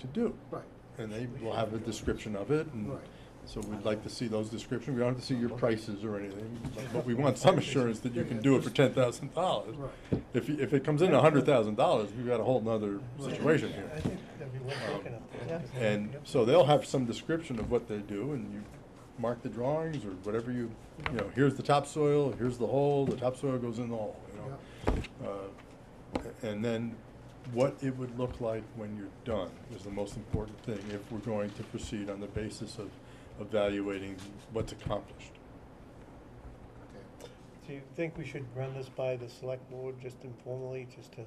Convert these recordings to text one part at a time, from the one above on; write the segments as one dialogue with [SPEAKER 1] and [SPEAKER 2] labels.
[SPEAKER 1] to do.
[SPEAKER 2] Right.
[SPEAKER 1] And they will have a description of it, and
[SPEAKER 2] Right.
[SPEAKER 1] so we'd like to see those descriptions, we don't have to see your prices or anything, but- but we want some assurance that you can do it for ten thousand dollars.
[SPEAKER 2] Right.
[SPEAKER 1] If, you- if it comes in a hundred thousand dollars, we've got a whole nother situation here.
[SPEAKER 3] I think that'd be worth looking at.
[SPEAKER 4] Yeah.
[SPEAKER 1] Um, And so they'll have some description of what they do, and you mark the drawings or whatever you, you know, here's the topsoil, here's the hole, the topsoil goes in the hole, you know? Uh, And then what it would look like when you're done is the most important thing, if we're going to proceed on the basis of evaluating what's accomplished.
[SPEAKER 2] Okay.
[SPEAKER 3] Do you think we should run this by the select board just informally, just to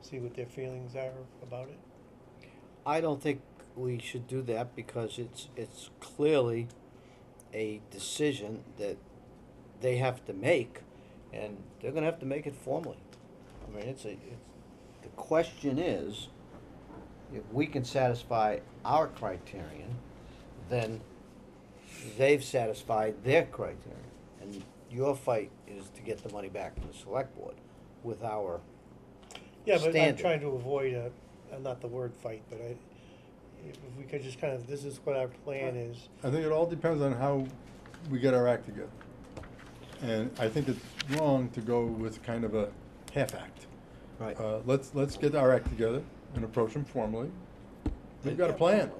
[SPEAKER 3] see what their feelings are about it?
[SPEAKER 4] I don't think we should do that because it's, it's clearly a decision that they have to make, and they're gonna have to make it formally. I mean, it's a, it's, the question is, if we can satisfy our criterion, then they've satisfied their criterion. And your fight is to get the money back from the select board with our,
[SPEAKER 3] Yeah, but I'm
[SPEAKER 4] Standard.
[SPEAKER 3] trying to avoid a, a- not the word fight, but I, if we could just kind of, this is what our plan is.
[SPEAKER 1] I think it all depends on how we get our act together. And I think it's wrong to go with kind of a half act.
[SPEAKER 4] Right.
[SPEAKER 1] Uh, let's, let's get our act together and approach them formally. We've got a plan.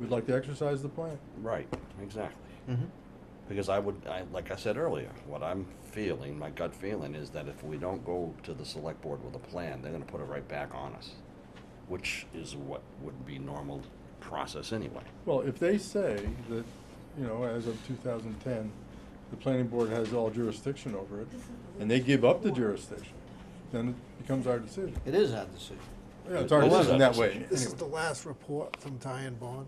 [SPEAKER 1] We'd like to exercise the plan.
[SPEAKER 5] Right, exactly.
[SPEAKER 4] Mm-hmm.
[SPEAKER 5] Because I would, I, like I said earlier, what I'm feeling, my gut feeling is that if we don't go to the select board with a plan, they're gonna put it right back on us. Which is what would be normal process anyway.
[SPEAKER 1] Well, if they say that, you know, as of two thousand ten, the planning board has all jurisdiction over it, and they give up the jurisdiction, then it becomes our decision.
[SPEAKER 4] it is our decision.
[SPEAKER 1] Yeah, it's our
[SPEAKER 5] This is our
[SPEAKER 1] decision that way,
[SPEAKER 5] decision.
[SPEAKER 2] This is
[SPEAKER 1] anyway.
[SPEAKER 2] the last report from Ty and Bond.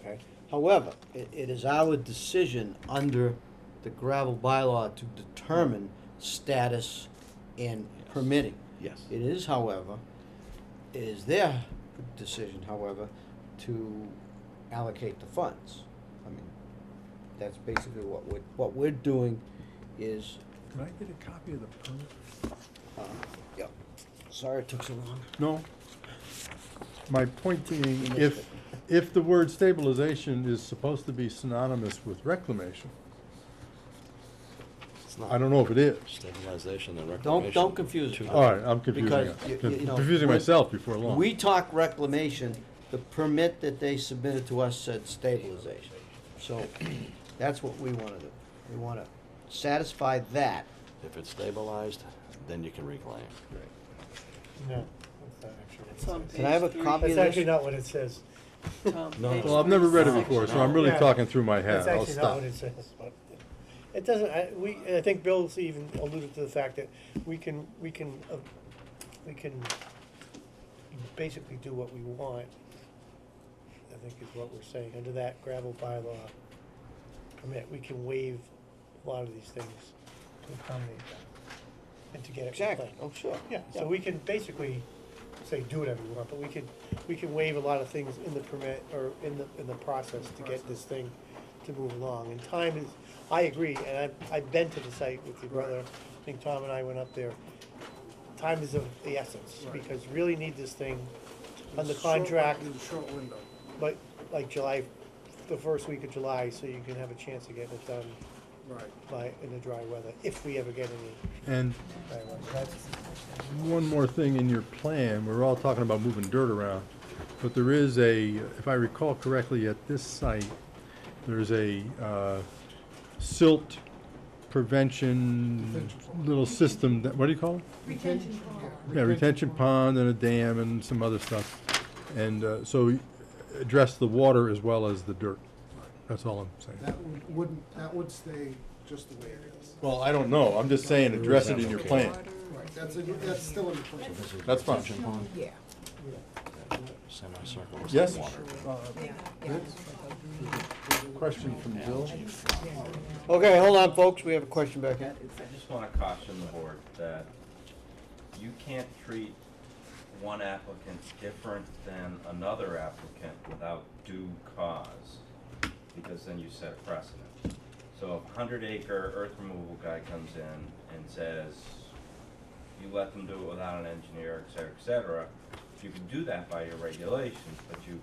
[SPEAKER 4] Okay. However, it, it is our decision under the gravel bylaw to determine status in
[SPEAKER 5] Yes.
[SPEAKER 4] permitting.
[SPEAKER 5] Yes.
[SPEAKER 4] It is, however, it is their decision, however, to allocate the funds. I mean, that's basically what we're, what we're doing is,
[SPEAKER 1] Can I get a copy of the permit?
[SPEAKER 4] uh, yeah, sorry it took so long.
[SPEAKER 1] No. My point being,
[SPEAKER 4] missed
[SPEAKER 1] if,
[SPEAKER 4] it.
[SPEAKER 1] if the word stabilization is supposed to be synonymous with reclamation,
[SPEAKER 5] It's not
[SPEAKER 1] I don't know if it is.
[SPEAKER 5] Stabilization and reclamation.
[SPEAKER 4] Don't, don't confuse
[SPEAKER 5] Two-
[SPEAKER 4] it.
[SPEAKER 1] All right, I'm confusing
[SPEAKER 4] Because,
[SPEAKER 1] it.
[SPEAKER 4] you- you
[SPEAKER 1] Conf-
[SPEAKER 4] know,
[SPEAKER 1] confusing
[SPEAKER 4] when-
[SPEAKER 1] myself before long.
[SPEAKER 4] We talk reclamation, the permit that they submitted to us said stabilization. So that's what we wanna do. We wanna satisfy that.
[SPEAKER 5] If it's stabilized, then you can reclaim.
[SPEAKER 3] No, that's not actually what it
[SPEAKER 6] It's on
[SPEAKER 3] says.
[SPEAKER 4] Can I have a
[SPEAKER 6] Page three.
[SPEAKER 4] copy of
[SPEAKER 3] That's
[SPEAKER 4] this?
[SPEAKER 3] actually not what it says. Um,
[SPEAKER 6] Tom,
[SPEAKER 5] No,
[SPEAKER 6] page
[SPEAKER 1] Well, I've never read it
[SPEAKER 6] six.
[SPEAKER 1] before, so I'm really
[SPEAKER 3] Yeah.
[SPEAKER 1] talking through my head.
[SPEAKER 3] That's
[SPEAKER 1] I'll
[SPEAKER 3] actually not
[SPEAKER 1] stop.
[SPEAKER 3] what it says, but it doesn't, I, we, I think Bill's even alluded to the fact that we can, we can, uh, we can basically do what we want, I think is what we're saying, under that gravel bylaw permit, we can waive a lot of these things to accommodate that and to get it
[SPEAKER 4] Exactly,
[SPEAKER 3] compliant.
[SPEAKER 4] oh, sure.
[SPEAKER 3] Yeah, so we can basically say do whatever we want, but we can, we can waive a lot of things in the permit or in the, in the process to get this thing to move along. And time is, I agree, and I, I've been to the site with your brother, I think Tom and I went up there. Time is of the essence,
[SPEAKER 2] Right.
[SPEAKER 3] because you really need this thing on the
[SPEAKER 2] It's a short-
[SPEAKER 3] contract,
[SPEAKER 2] it's a short window.
[SPEAKER 3] like, like July, the first week of July, so you can have a chance of getting it done
[SPEAKER 2] Right.
[SPEAKER 3] by, in the dry weather, if we ever get any
[SPEAKER 1] And
[SPEAKER 3] dry weather. That's-
[SPEAKER 1] one more thing in your plan, we're all talking about moving dirt around, but there is a, if I recall correctly, at this site, there's a, uh, silt prevention little system that, what do you call it?
[SPEAKER 6] Retention pond.
[SPEAKER 1] Yeah, retention pond and a dam and some other stuff. And, uh, so y- address the water as well as the dirt. That's all I'm saying.
[SPEAKER 2] That would- wouldn't, that would stay just the way it is.
[SPEAKER 1] Well, I don't know. I'm just saying address it in your plan.
[SPEAKER 2] Right, that's, in- that's still in the plan.
[SPEAKER 5] This is
[SPEAKER 1] That's fine.
[SPEAKER 5] retention pond,
[SPEAKER 6] Yeah.
[SPEAKER 5] Semicircle. with
[SPEAKER 1] Yes?
[SPEAKER 5] water.
[SPEAKER 1] Question from Bill?
[SPEAKER 4] Okay, hold on, folks, we have a question back here.
[SPEAKER 7] I just wanna caution the board that you can't treat one applicant different than another applicant without due cause, because then you set a precedent. So if a hundred acre earth removal guy comes in and says, you let them do it without an engineer, et cetera, et cetera, you can do that by your regulations, but you